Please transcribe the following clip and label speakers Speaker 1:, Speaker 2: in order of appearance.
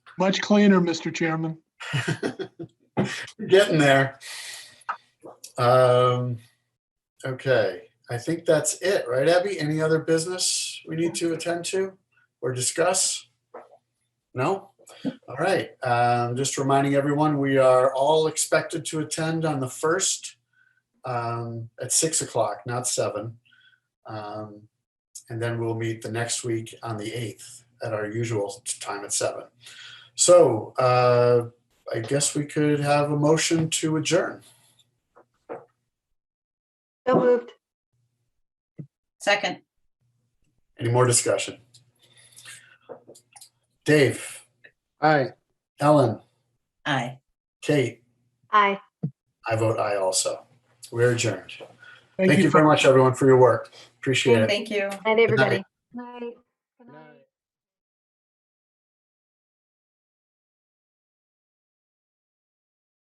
Speaker 1: Much cleaner, Mr. Chairman.
Speaker 2: We're Getting there. Um, okay, I think that's it, right, Abby? Any other business we need to attend to or discuss? No? All right, um, just reminding everyone, we are all expected to attend on the first um, at six o'clock, not seven. Um, and then we'll meet the next week on the eighth at our usual time at seven. So, uh, I guess we could have a motion to adjourn.
Speaker 3: So moved.
Speaker 4: Second,
Speaker 2: Any more discussion? Dave,
Speaker 5: Aye.
Speaker 2: Ellen,
Speaker 4: aye.
Speaker 2: Kate,
Speaker 3: Aye.
Speaker 2: I vote aye also. We're adjourned.
Speaker 1: Thank
Speaker 2: Thank you
Speaker 1: you for
Speaker 2: very much, everyone, for your work. Appreciate it.
Speaker 4: Thank you.
Speaker 3: Night, everybody.
Speaker 2: night.
Speaker 3: Night.